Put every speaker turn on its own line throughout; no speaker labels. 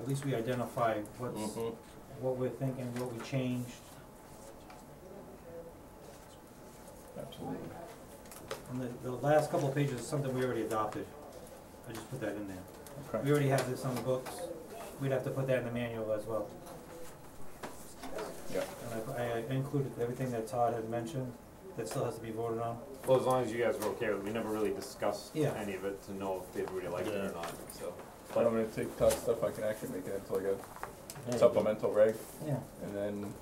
at least we identify what's,
Mhm.
what we're thinking, what we changed,
Absolutely.
and the, the last couple of pages is something we already adopted. I just put that in there.
Okay.
We already have this on the books, we'd have to put that in the manual as well.
Yeah.
And I, I included everything that Todd had mentioned, that still has to be voted on.
Well, as long as you guys were okay with it, we never really discussed
Yeah.
any of it to know if everybody liked it
Yeah.
or not, so.
I'm gonna take top stuff, I can actually make it into like a supplemental reg,
Yeah.
and then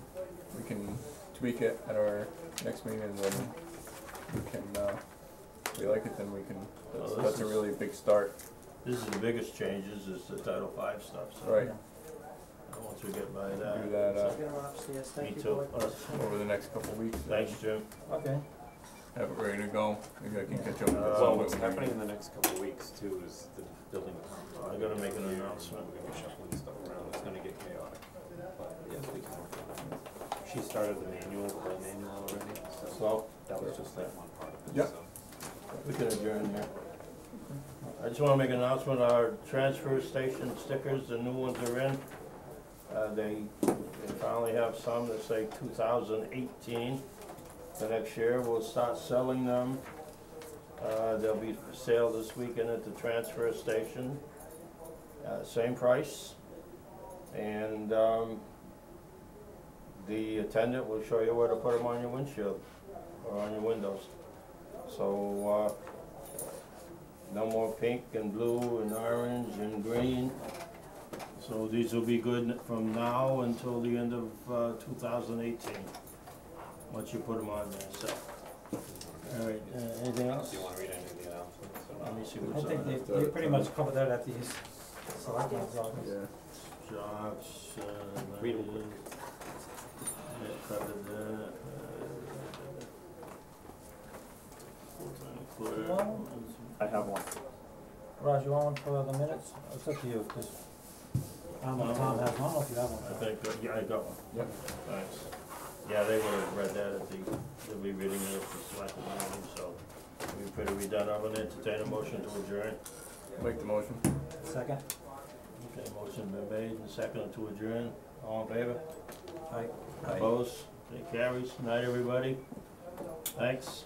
we can tweak it at our next meeting, and then we can, uh, if we like it, then we can, that's,
Well, this
that's a
is-
really big start,
This is the biggest changes, is the Title Five stuff, so.
Right.
Once we get by
do
that,
that, uh,
me too, us,
over the next couple of weeks. and
thanks, Jim.
Okay,
Have it ready to go, maybe I can catch up with
Uh,
Well,
some
what's
of it.
happening in the next couple of weeks too is the building.
I'm gonna make an announcement.
We're gonna be shuffling stuff around, it's gonna get chaotic, but yes, we can work on it. She started the manual, the whole manual already, so
So,
that was just that one part of
Yeah.
it, so.
we can adjourn here. I just wanna make an announcement, our transfer station stickers, the new ones are in. Uh, they, they finally have some that say two thousand eighteen. The next year, we'll start selling them. Uh, they'll be for sale this weekend at the transfer station, uh, same price. And, um, the attendant will show you where to put them on your windshield or on your windows. So, uh, no more pink and blue and orange and green. So these will be good from now until the end of uh, 2018, once you put them on there, so. All right, uh, anything else?
Do you wanna read any of the announcements or
Let
not?
me see
I
what's
think
on it.
they, they pretty much covered that at the selectmen's office.
Yeah.
Jobs, uh,
Read 'em
land, that covered that, uh, full-time clerk.
Well,
I have one.
Raj, you want one for the minutes? It's up to you, just, I don't know if Tom has one, or if you have one.
I think, uh, yeah, I got one.
Yep.
Thanks. Yeah, they would have read that at the, they'll be reading it at the select meeting, so we pretty, we done, I'm gonna entertain a motion to adjourn.
Make the motion.
Second?
Okay, motion been made and seconded to adjourn, all in favor?
Aye.
Opposed? It carries, night everybody, thanks.